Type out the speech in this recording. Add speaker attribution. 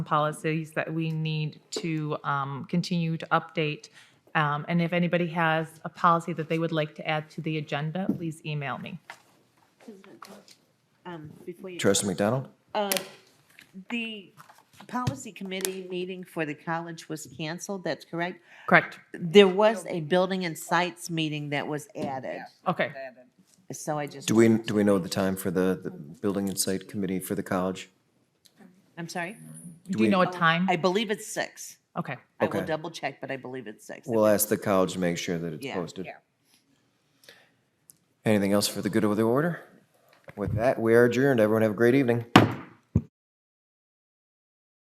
Speaker 1: policies that we need to um, continue to update. Um, And if anybody has a policy that they would like to add to the agenda, please email me.
Speaker 2: Um, before you.
Speaker 3: Trustee McDonald?
Speaker 2: Uh, The policy committee meeting for the college was canceled, that's correct?
Speaker 1: Correct?
Speaker 2: There was a building and sites meeting that was added,
Speaker 1: Okay.
Speaker 2: so I just.
Speaker 3: Do we, do we know the time for the, the Building and Site Committee for the college?
Speaker 2: I'm sorry?
Speaker 1: Do you know a time?
Speaker 2: I believe it's six.
Speaker 1: Okay.
Speaker 2: I will
Speaker 3: Okay.
Speaker 2: double check, but I believe it's six.
Speaker 3: We'll ask the college to make sure that it's
Speaker 2: Yeah.
Speaker 3: posted. Anything else for the good of the order? With that, we are adjourned. Everyone have a great evening.